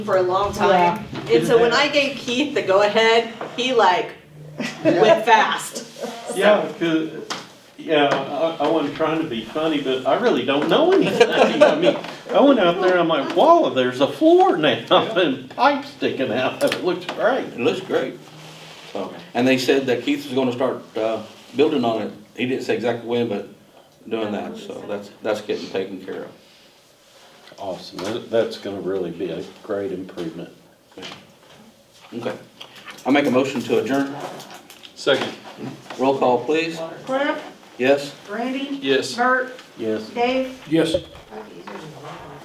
for a long time. And so when I gave Keith the go-ahead, he like went fast. Yeah, because, yeah, I, I wasn't trying to be funny, but I really don't know anything. I mean, I went out there, I'm like, whoa, there's a floor now and pipe sticking out. It looks great. It looks great. So, Okay. and they said that Keith was gonna start, uh, building on it. He didn't say exactly when, but doing that, so that's, that's getting taken care of. Awesome. That, that's gonna really be a great improvement. Okay. I make a motion to adjourn. Second. Roll call, please. Cliff, Yes? Randy, Yes. Bert, Yes. Dave, Yes.